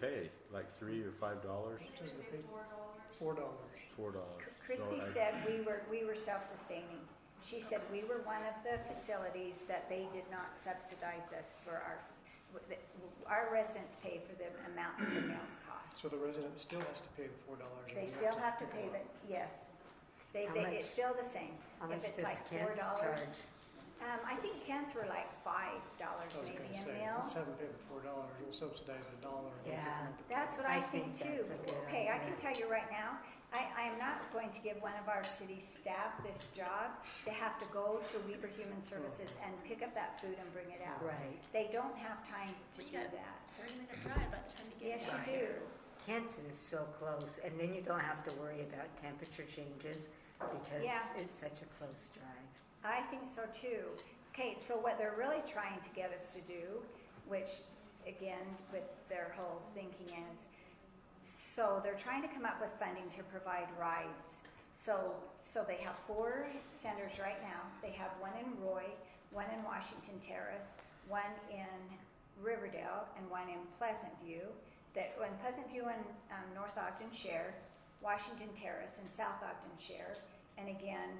pay? Like three or five dollars? Which is the big Four dollars. four dollars. Four dollars? Christy said we were, we were self-sustaining. She said we were one of the facilities that they did not subsidize us for our, our residents pay for the amount that the meals cost. So the resident still has to pay the four dollars. They still have to pay the, yes. They, How they, much- it's still the same. How much If it's does like four Kent's charge? dollars. Um, I think cans were like five dollars I was maybe gonna a say, meal. let's have them pay the four dollars, we'll subsidize the dollar. and we'll give them the- That's what I I think think too. that's a good Okay, I can idea. tell you right now, I, I am not going to give one of our city staff this job to have to go to Weber Human Services and pick up that food and bring it out. Right. They don't have time to do Yeah. that. Thirty minute drive by the time you Yes, get you there. do. Canton is so close, and then you don't have to worry about temperature changes because Yeah. it's such a close drive. I think so too. Okay, so what they're really trying to get us to do, which again, with their whole thinking is, so they're trying to come up with funding to provide rides. So, so they have four centers right now. They have one in Roy, one in Washington Terrace, one in Riverdale, and one in Pleasant View. That when Pleasant View and um, North Ogden share, Washington Terrace and South Ogden share, and again,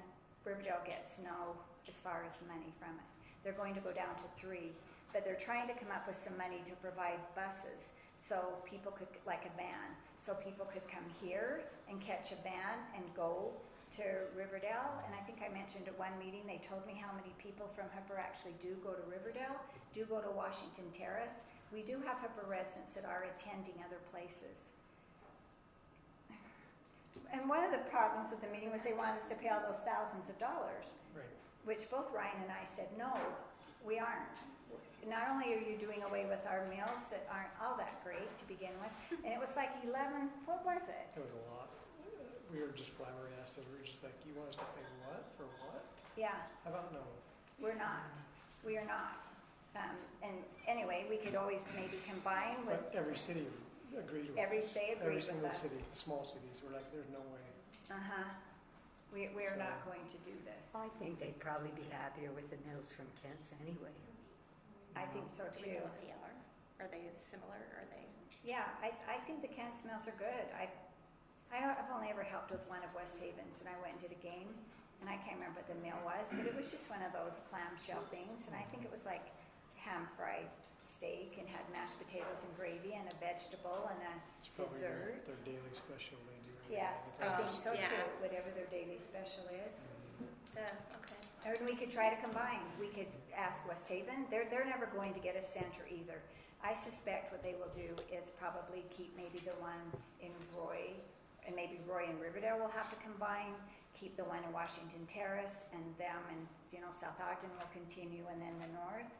Riverdale gets no as far as money from it. They're going to go down to three, but they're trying to come up with some money to provide buses so people could, like a van, so people could come here and catch a van and go to Riverdale. And I think I mentioned at one meeting, they told me how many people from Hooper actually do go to Riverdale, do go to Washington Terrace. We do have Hooper residents that are attending other places. And one of the problems with the meeting was they wanted us to pay all those thousands of dollars Right, which both Ryan and I said, no, we aren't. Not only are you doing away with our meals that aren't all that great to begin with, and it was like 11, what was it? that was a lot. We were just flabbergasted, we were just like, you want us to pay what, for what? Yeah, How about no? we're not. We are not. Um, and anyway, we could always maybe combine with, But every city agreed with us. Every- they agreed Every with single us. city, the small cities, we're like, there's no way. uh huh, we, we are not So- going to do this. I think they'd probably be happier with the meals from Kent's anyway. I think so Do we too. know what they are? Are they similar? Are they? Yeah, I, I think the canned smells are good. I, I, I've only ever helped with one of West Haven's, and I went and did a game, and I can't remember what the meal was, but it was just one of those clamshell things, and I think it was like ham fried steak and had mashed potatoes and gravy and a vegetable and a It's probably their- Dessert. Their daily special they do. right? yes, Like, I Oh, think so yeah. too. Whatever their daily special is. The okay. And we could try to combine. We could ask West Haven. They're, they're never going to get a center either. I suspect what they will do is probably keep maybe the one in Roy, and maybe Roy and Riverdale will have to combine, keep the one in Washington Terrace, and them and, you know, South Ogden will continue, and then the north.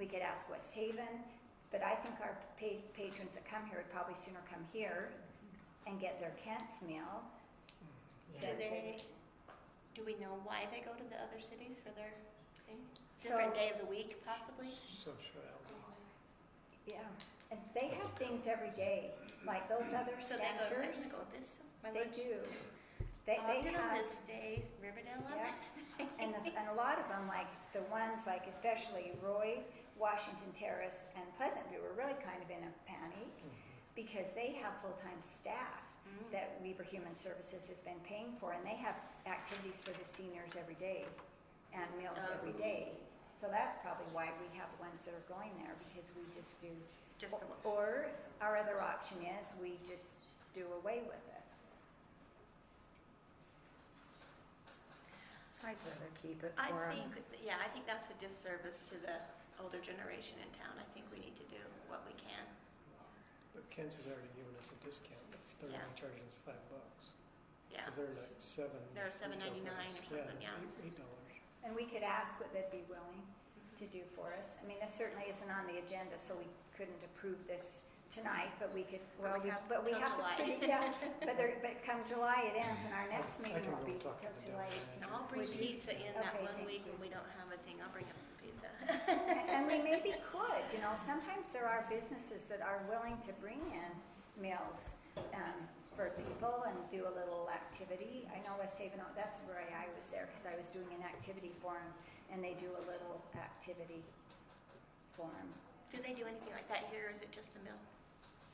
We could ask West Haven, but I think our pa- patrons that come here would probably sooner come here and get their Kent's meal Mm. Do Yeah. Yeah. they? Do we know why they go to the other cities for their thing? So- Different day of the week, possibly. Sociality. Yeah, and they have things every day, like those other So they go. I'm gonna centers. go with this. My They lunch. Oh, do. They, they Ogden on have, this day, Riverdale on Yeah. this and, the- and a lot of them, like the ones, like especially Roy, Washington Terrace, and Pleasant View were really kind of in a panic Mm-hmm. because they have full-time staff Mm. that Weber Human Services has been paying for, and they have activities for the seniors every day and meals Oh. every day. So that's probably why we have ones that are going there because we just do Just the one. Or our other option is we just do away with it. I'd rather keep it I for um, 'em. think, yeah, I think that's a disservice to the older generation in town. I think we need to do what we can. But Kent's has already given us a discount, if they're Yeah. only charging us five bucks. Yeah. Because they're like seven. They're $7.99 retail or price. something, yeah. Eight, eight dollars. And we could ask what they'd be willing to do for us. I mean, this certainly isn't on the agenda, so we couldn't approve this tonight, but we could, But well, we, we have but we till have to July. pretty, yeah. But there, but come July, it ends, and our next I- I meeting can will go be till talk to the July. delegate. And I'll bring Would you- pizza in that Okay, one thank week you. when we don't have a thing. I'll bring up some pizza. And and we maybe could, you know, sometimes there are businesses that are willing to bring in meals um, for people and do a little activity. I know West Haven, oh, that's where I was there, because I was doing an activity for them, and they do a little activity for them. do they do anything like that here, or is it just the mill?